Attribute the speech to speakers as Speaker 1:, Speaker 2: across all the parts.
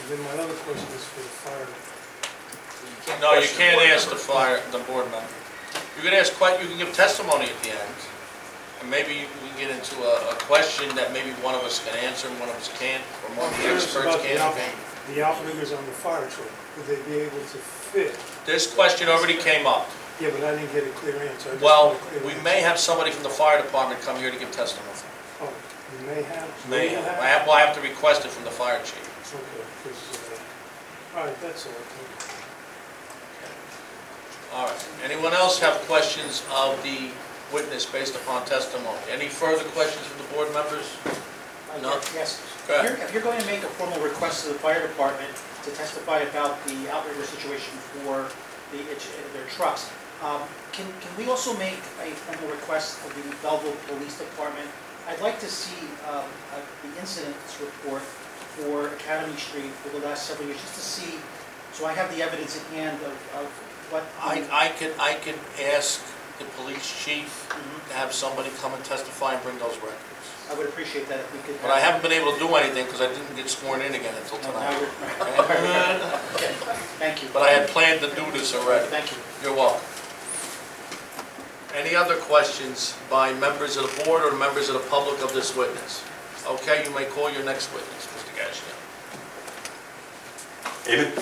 Speaker 1: And then my other question is for the fire.
Speaker 2: No, you
Speaker 3: question
Speaker 2: can't
Speaker 3: board
Speaker 2: ask the
Speaker 3: members.
Speaker 2: fire, the board member. You can ask que, you can give testimony at the end. And maybe you- we can get into a, a question that maybe one of us can answer and one of us can't, or one of the
Speaker 1: Curious
Speaker 2: experts
Speaker 1: about the
Speaker 2: can't.
Speaker 1: out- The outriggers on the fire truck, would they be able to fit?
Speaker 2: This question already came up.
Speaker 1: Yeah, but I didn't get a clear answer. I just
Speaker 2: Well,
Speaker 1: want a clear
Speaker 2: we
Speaker 1: answer.
Speaker 2: may have somebody from the fire department come here to give testimony.
Speaker 1: Oh, you may have.
Speaker 2: May have, I have, well, I have to request it from the fire chief.
Speaker 1: Okay, 'cause, uh, all right, that's all. Thank you.
Speaker 2: All right, anyone else have questions of the witness based upon testimony? Any further questions from the board members?
Speaker 3: Uh,
Speaker 2: No.
Speaker 3: Yes.
Speaker 2: Go ahead.
Speaker 3: You're- If you're going to make a formal request to the fire department to testify about the outrigger situation for the, their trucks, um, can, can we also make a formal request of the Belleville Police Department? I'd like to see um, uh, the incidents report for Academy Street for the last several years, just to see, so I have the evidence at hand of, of what.
Speaker 2: I, I could, I could ask the police chief
Speaker 3: Mhm.
Speaker 2: to have somebody come and testify and bring those records.
Speaker 3: I would appreciate that if we could.
Speaker 2: But I haven't been able to do anything because I didn't get sworn in again until
Speaker 3: No, now
Speaker 2: tonight.
Speaker 3: we're- Thank you.
Speaker 2: But I had planned to do this already.
Speaker 3: Thank you.
Speaker 2: You're welcome. Any other questions by members of the board or members of the public of this witness? Okay, you may call your next witness, Mr. Gassion.
Speaker 4: David?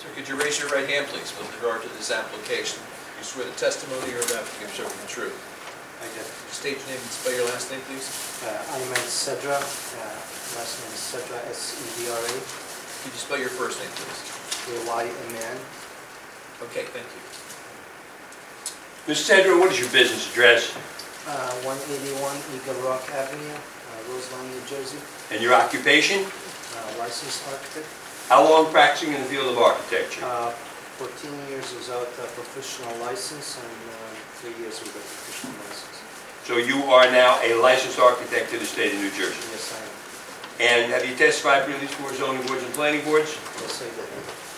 Speaker 5: Sir, could you raise your right hand, please, with regard to this application? You swear the testimony you're about to give, sir, will be true.
Speaker 6: I do.
Speaker 5: Could you State your name and spell your last name, please.
Speaker 6: Uh, I'm Ahmed Sedra, uh, last name is Sedra, E S-E-D-R-A,
Speaker 5: Could you spell your first name, please?
Speaker 6: A-Y-M-N.
Speaker 5: Okay, thank you.
Speaker 4: Mr. Sedra, what is your business address
Speaker 6: Uh, 181 Eagle Rock Avenue, uh, Roseland, New Jersey,
Speaker 4: and your occupation?
Speaker 6: Uh, licensed architect.
Speaker 4: How long practicing in the field of architecture?
Speaker 6: Uh, 14 years without a professional license and uh, three years with a professional license.
Speaker 4: So you are now a licensed architect to the state of New Jersey.
Speaker 6: Yes, I am.
Speaker 4: And have you testified for these four zoning boards and planning boards?
Speaker 6: Yes, I did.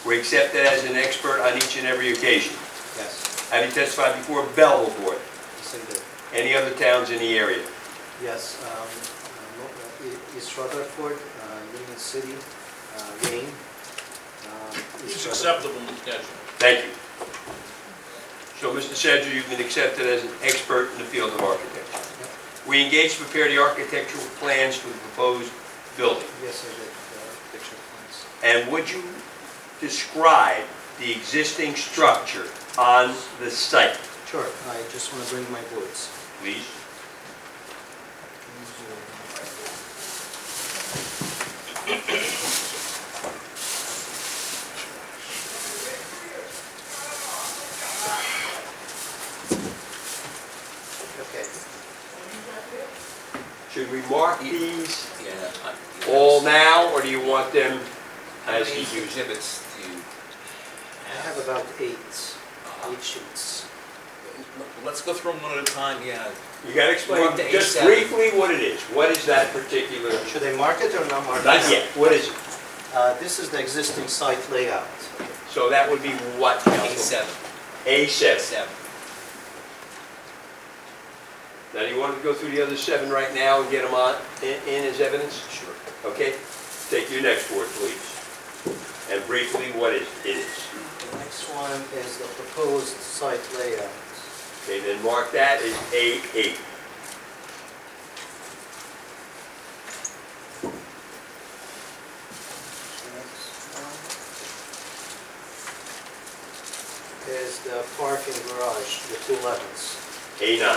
Speaker 4: Were accepted as an expert on each and every occasion.
Speaker 6: Yes,
Speaker 4: Have you testified before Belleville Board?
Speaker 6: yes, I did.
Speaker 4: Any other towns in the area?
Speaker 6: Yes, um, uh, Mo- uh, E- East Rutherford, uh, Union City, uh, Wayne. um, East
Speaker 2: It's
Speaker 6: Rutherford.
Speaker 2: acceptable, Mr. Gassion.
Speaker 4: Thank you. So, Mr. Sedra, you've been accepted as an expert in the field of architecture. We engaged to prepare the architectural plans for the proposed building.
Speaker 6: Yes, I did, uh, picture plans.
Speaker 4: And would you describe the existing structure on the site,
Speaker 6: Sure, I just want to bring my boards.
Speaker 4: please?
Speaker 6: Okay,
Speaker 4: Should we mark these
Speaker 5: Yeah. I-
Speaker 4: all now, or do you want them
Speaker 5: How
Speaker 4: as
Speaker 5: many
Speaker 4: he used?
Speaker 5: exhibits do you
Speaker 6: I have about eight,
Speaker 5: have?
Speaker 6: eight sheets.
Speaker 5: Let's go through them one at a time, yeah.
Speaker 4: You gotta explain
Speaker 5: Mark the
Speaker 4: just
Speaker 5: A7.
Speaker 4: briefly what it is. What is that particular?
Speaker 6: Should I mark it or not mark it?
Speaker 4: Not yet, what is it?
Speaker 6: Uh, This is the existing site layout.
Speaker 4: So that would be what, Council?
Speaker 5: Seven,
Speaker 4: A7.
Speaker 5: seven.
Speaker 4: Now, do you want to go through the other seven right now and get them on, in in as evidence?
Speaker 5: Sure.
Speaker 4: Okay, take your next word, please. And briefly, what is it is.
Speaker 6: The next one is the proposed site layout.
Speaker 4: Okay, then mark that as A8.
Speaker 6: The next one is the parking garage, the two levels.
Speaker 4: A9.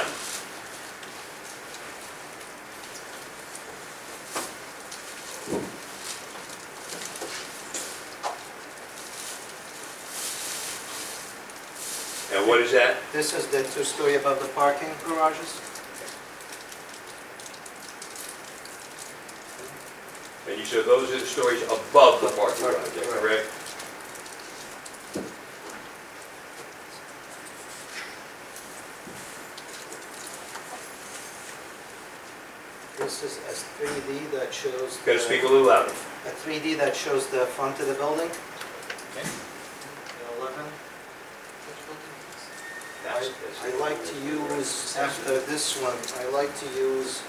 Speaker 4: And what is that?
Speaker 6: This is the two-story above the parking garages?
Speaker 4: And you said those are the stories above the parking lot, is that
Speaker 6: Correct.
Speaker 4: correct?
Speaker 6: This is a 3D that shows...
Speaker 4: Got to
Speaker 6: the-
Speaker 4: speak a little louder.
Speaker 6: a 3D that shows the front of the building.
Speaker 5: Okay.
Speaker 6: The 11. I I like to use, after this one, I like to use